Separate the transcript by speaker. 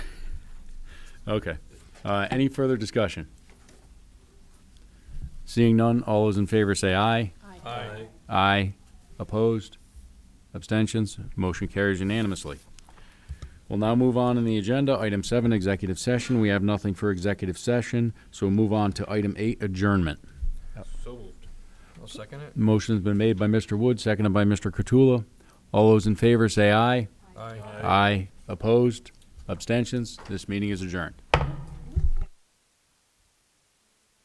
Speaker 1: Okay. Uh, any further discussion? Seeing none, all those in favor say aye.
Speaker 2: Aye.
Speaker 1: Aye. Opposed? Abstentions? Motion carries unanimously. We'll now move on in the agenda. Item seven, executive session. We have nothing for executive session, so we'll move on to item eight, adjournment.
Speaker 2: So moved. I'll second it.
Speaker 1: Motion's been made by Mr. Wood, seconded by Mr. Cottula. All those in favor say aye.
Speaker 2: Aye.
Speaker 1: Aye. Opposed? Abstentions? This meeting is adjourned.